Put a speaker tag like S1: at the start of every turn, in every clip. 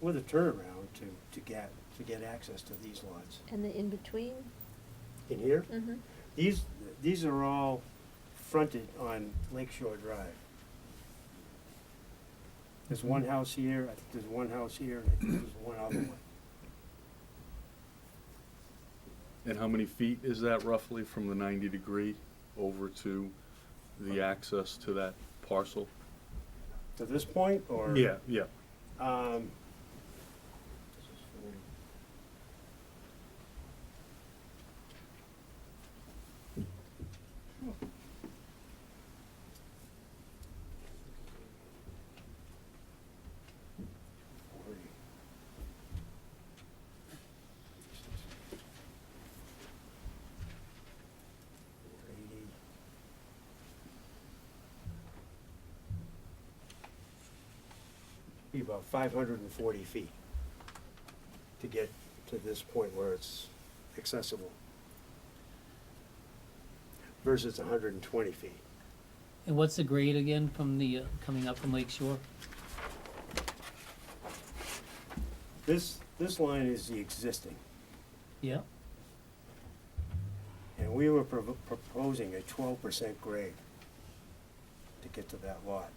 S1: with a turnaround to, to get, to get access to these lots.
S2: And the in-between?
S1: In here,
S2: Mm-hmm.
S1: these, these are all fronted on Lake Shore Drive. There's one house here, I think there's one house here, and I think there's one other one.
S3: And how many feet is that roughly from the ninety degree over to the access to that parcel?
S1: To this point, or?
S3: Yeah, yeah.
S1: Um, be about five hundred and forty feet to get to this point where it's accessible. Versus hundred and twenty feet.
S4: And what's the grade again from the, uh, coming up from Lake Shore?
S1: This, this line is the existing,
S4: Yeah,
S1: and we were provo- proposing a twelve percent grade to get to that lot.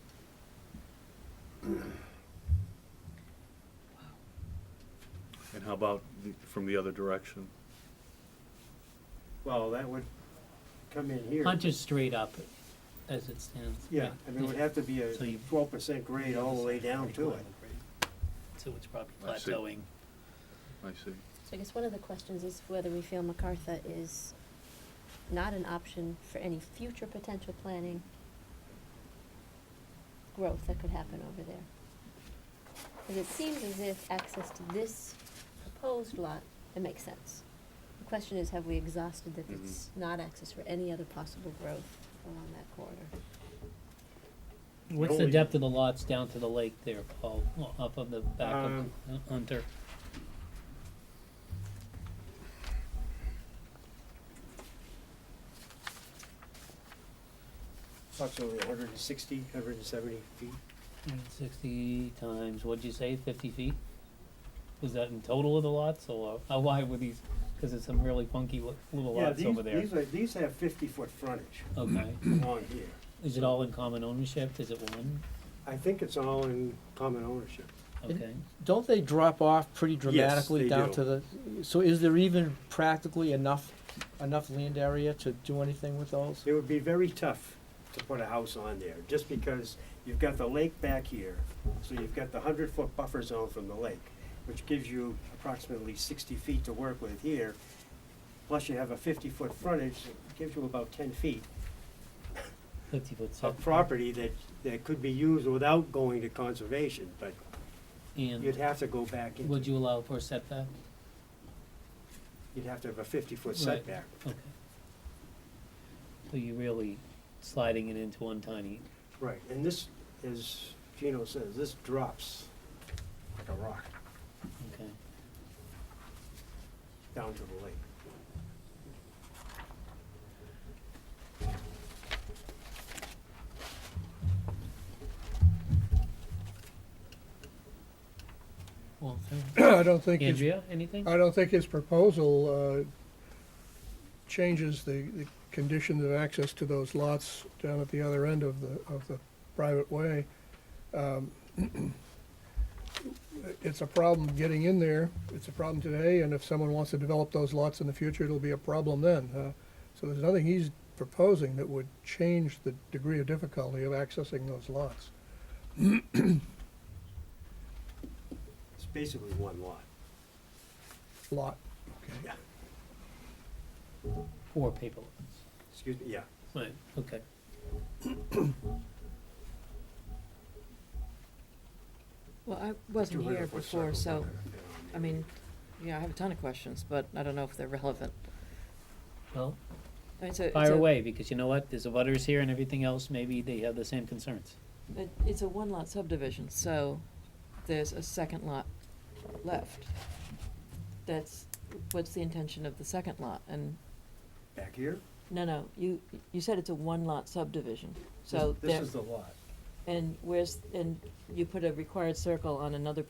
S3: And how about the- from the other direction?
S1: Well, that would come in here.
S4: punch it straight up as it stands.
S1: Yeah, I mean, it would have to be a
S4: So you-
S1: twelve percent grade all the way down to it.
S4: So it's probably
S3: I see.
S4: plateauing.
S3: I see.
S2: So I guess one of the questions is whether we feel MacArthur is not an option for any future potential planning growth that could happen over there. Because it seems as if access to this proposed lot, it makes sense. The question is, have we exhausted that
S3: Mhm.
S2: it's not access for any other possible growth along that corridor?
S4: What's the
S1: Only-
S4: depth of the lots down to the lake there, Paul, Well, up of the back of
S1: Um,
S4: uh, Hunter?
S1: Approximately 160, 170 feet.
S4: Sixty times, what'd you say, fifty feet? Was that in total of the lots, or how wide were these, cause it's some really funky lo- little
S1: Yeah,
S4: lots
S1: these-
S4: over there.
S1: These are, these have fifty-foot frontage
S4: Okay,
S1: along here.
S4: is it all in common ownership, is it one?
S1: I think it's all in common ownership.
S5: It-
S4: Okay,
S5: Don't they drop off pretty dramatically
S1: they
S5: down
S1: do.
S5: to the, so is there even practically enough, enough land area to do anything with those?
S1: It would be very tough to put a house on there, just because you've got the lake back here, so you've got the hundred-foot buffer zone from the lake, which gives you approximately sixty feet to work with here, plus you have a fifty-foot frontage, it gives you about ten feet
S4: fifty foot setback.
S1: of property that, that could be used without going to conservation, but you'd
S4: And
S1: have to go back
S4: would
S1: into,
S4: you allow for a setback?
S1: you'd have to have a fifty-foot
S4: Right.
S1: setback.
S4: Okay. So you're really sliding it into one tiny,
S1: Right, and this, as Gino says, this drops like a rock
S4: okay.
S1: down to the lake.
S4: Well, so-
S6: I don't think, his-
S4: Andrea, anything?
S6: I don't think his proposal uh, changes the, the conditions of access to those lots down at the other end of the, of the private way. Um, It's a problem getting in there, it's a problem today, and if someone wants to develop those lots in the future, it'll be a problem then. Uh, So there's nothing he's proposing that would change the degree of difficulty of accessing those lots.
S1: It's basically one lot.
S6: Lot,
S1: Yeah.
S4: Four paper lots.
S1: Excuse me, yeah.
S4: Right, okay.
S7: Well, I wasn't here
S1: 200-foot
S7: before,
S1: circle.
S7: so, I mean, yeah, I have a ton of questions, but I don't know if they're relevant.
S4: Well,
S7: I mean, it's a- it's
S4: fire
S7: a-
S4: away, because you know what, there's a butters here and everything else, maybe they have the same concerns.
S7: it- It's a one-lot subdivision, so there's a second lot left. That's, what's the intention of the second lot? And,
S1: Back here?
S7: no, no, you, you said it's a one-lot subdivision, so
S1: This-
S7: there,
S1: This is the lot.
S7: and where's, and you put a required circle on another